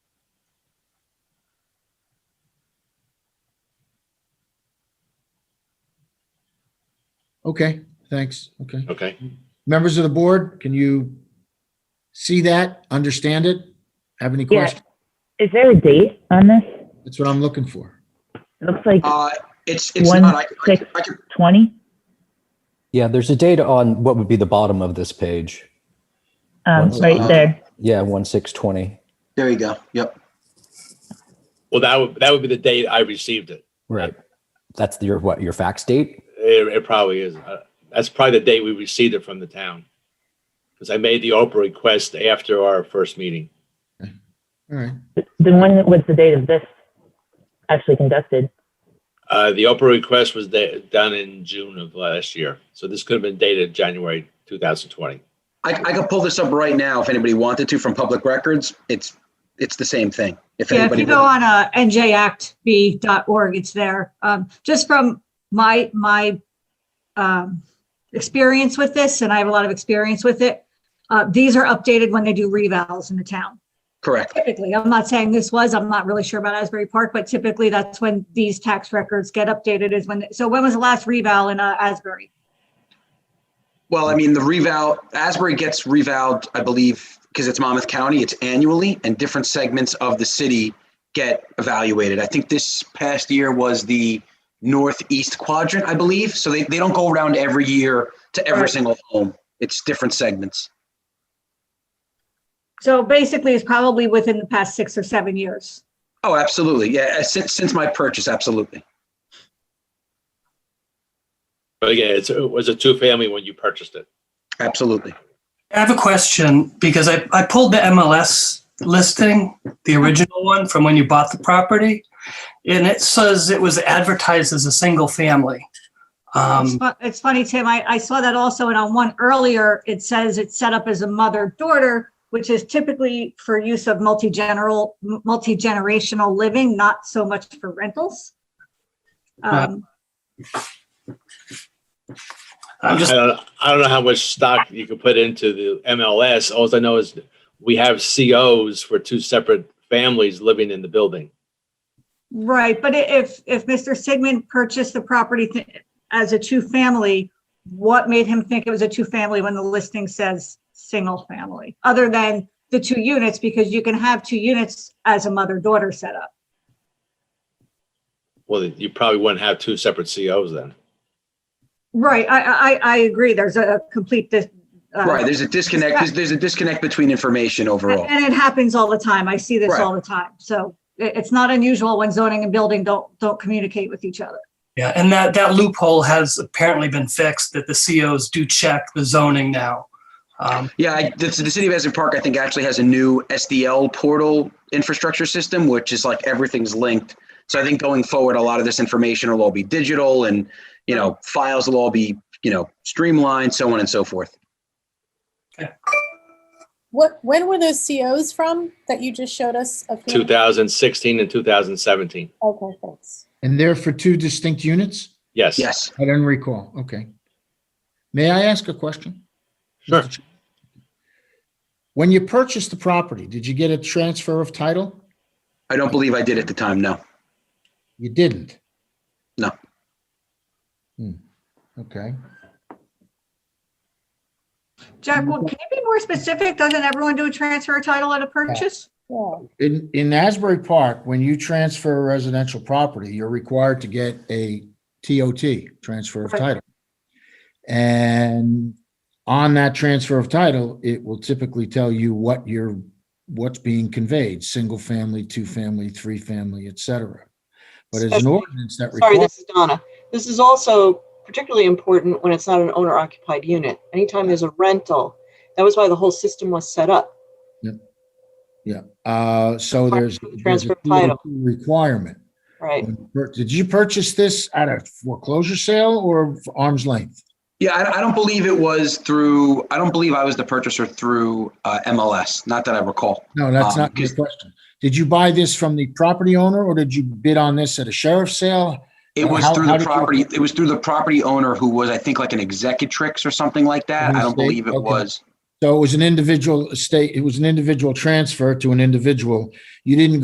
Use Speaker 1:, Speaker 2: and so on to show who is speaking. Speaker 1: Okay, thanks. Okay.
Speaker 2: Okay,
Speaker 1: Members of the board, can you see that, understand it? Have any
Speaker 3: Yeah.
Speaker 1: questions?
Speaker 3: Is there a date on this?
Speaker 1: That's what I'm looking for.
Speaker 3: It looks like
Speaker 4: Uh, it's, it's
Speaker 3: One
Speaker 4: not, I, I,
Speaker 3: six-
Speaker 4: I could,
Speaker 3: 20.
Speaker 5: Yeah, there's a date on what would be the bottom of this page.
Speaker 3: Um,
Speaker 5: One
Speaker 3: right
Speaker 4: second.
Speaker 3: there.
Speaker 5: Yeah, one six twenty.
Speaker 4: there you go, yep.
Speaker 2: well, that would, that would be the date I received it.
Speaker 5: Right. That's your what your fax date?
Speaker 2: It, it probably is. Uh, That's probably the date we received it from the town. Because I made the Oprah request after our first meeting.
Speaker 1: All right.
Speaker 3: The one that was the date of this actually conducted.
Speaker 2: Uh, the Oprah request was da- done in June of last year. So this could have been dated January 2020.
Speaker 4: I, I could pull this up right now if anybody wanted to from public records. It's, it's the same thing. If
Speaker 6: Yeah, if
Speaker 4: anybody,
Speaker 6: you go
Speaker 4: wanted-
Speaker 6: on uh, njactb.org, it's there. Um, Just from my, my um, experience with this, and I have a lot of experience with it, uh, these are updated when they do revals in the town.
Speaker 4: correct,
Speaker 6: Typically, I'm not saying this was, I'm not really sure about Asbury Park, but typically that's when these tax records get updated is when, so when was the last reval in uh, Asbury?
Speaker 4: well, I mean, the revow, Asbury gets revowed, I believe, because it's Monmouth County, it's annually, and different segments of the city get evaluated. I think this past year was the northeast quadrant, I believe, so they, they don't go around every year to every
Speaker 6: Right.
Speaker 4: single home. It's different segments.
Speaker 6: So basically it's probably within the past six or seven years.
Speaker 4: Oh, absolutely, yeah, since, since my purchase, absolutely.
Speaker 2: But again, it's, it was a two family when you purchased it.
Speaker 4: Absolutely.
Speaker 7: I have a question because I, I pulled the MLS listing, the original one from when you bought the property, and it says it was advertised as a single family.
Speaker 6: It's
Speaker 7: Um,
Speaker 6: fu- It's funny, Tim, I, I saw that also, and on one earlier, it says it's set up as a mother-daughter, which is typically for use of multi-general, multi-generational living, not so much for rentals. Um,
Speaker 7: I'm just,
Speaker 2: I don't, I don't know how much stock you could put into the MLS. All I know is we have COs for two separate families living in the building.
Speaker 6: Right, but i- if, if Mr. Sigmund purchased the property th- as a two-family, what made him think it was a two-family when the listing says single-family? Other than the two units, because you can have two units as a mother-daughter setup.
Speaker 2: Well, you probably wouldn't have two separate COs then.
Speaker 6: Right, I, I, I agree, there's a complete. dis- uh,
Speaker 4: Right, there's a disconnect, there's, there's a disconnect between information overall.
Speaker 6: And it happens all the time, I see this
Speaker 4: Right.
Speaker 6: all the time, so it, it's not unusual when zoning and building don't, don't communicate with each other.
Speaker 7: yeah, and that, that loophole has apparently been fixed that the COs do check the zoning now. Um,
Speaker 4: Yeah, I, the, the city of Asbury Park, I think, actually has a new SDL portal infrastructure system, which is like everything's linked. So I think going forward, a lot of this information will all be digital and, you know, files will all be, you know, streamlined, so on and so forth.
Speaker 8: What, when were those COs from that you just showed us? a few-
Speaker 2: 2016 and 2017.
Speaker 8: Okay, thanks.
Speaker 1: And they're for two distinct units?
Speaker 2: Yes.
Speaker 4: Yes,
Speaker 1: I don't recall. Okay. May I ask a question?
Speaker 2: Sure.
Speaker 1: When you purchased the property, did you get a transfer of title?
Speaker 4: I don't believe I did at the time, no.
Speaker 1: You didn't?
Speaker 4: No.
Speaker 1: Hmm, Okay.
Speaker 6: Jack, well, can you be more specific, doesn't everyone do a transfer of title at a purchase?
Speaker 8: Yeah.
Speaker 1: In, in Asbury Park, when you transfer a residential property, you're required to get a TOT, transfer of
Speaker 6: Right.
Speaker 1: title. And on that transfer of title, it will typically tell you what your, what's being conveyed, single family, two family, three family, et cetera. But as an
Speaker 9: Especially-
Speaker 1: ordinance that
Speaker 9: Sorry,
Speaker 1: requires,
Speaker 9: this is Donna. This is also particularly important when it's not an owner occupied unit. Anytime there's a rental, that was why the whole system was set up.
Speaker 1: uh, so there's. there's a
Speaker 9: Transfer of title.
Speaker 1: TOT Requirement.
Speaker 9: Right.
Speaker 1: Did you purchase this at a foreclosure sale or arm's length?
Speaker 4: Yeah, I, I don't believe it was through, I don't believe I was the purchaser through uh, MLS, not that I recall.
Speaker 1: No, that's
Speaker 4: Um,
Speaker 1: not my
Speaker 4: because-
Speaker 1: question. Did you buy this from the property owner or did you bid on this at a sheriff's sale?
Speaker 4: It was
Speaker 1: How-
Speaker 4: through
Speaker 1: how
Speaker 4: the
Speaker 1: did you-
Speaker 4: property, it was through the property owner who was, I think, like an executrix or something like that. I don't
Speaker 1: Estate?
Speaker 4: believe it
Speaker 1: Okay.
Speaker 4: was.
Speaker 1: So it was an individual estate, it was an individual transfer to an individual. You didn't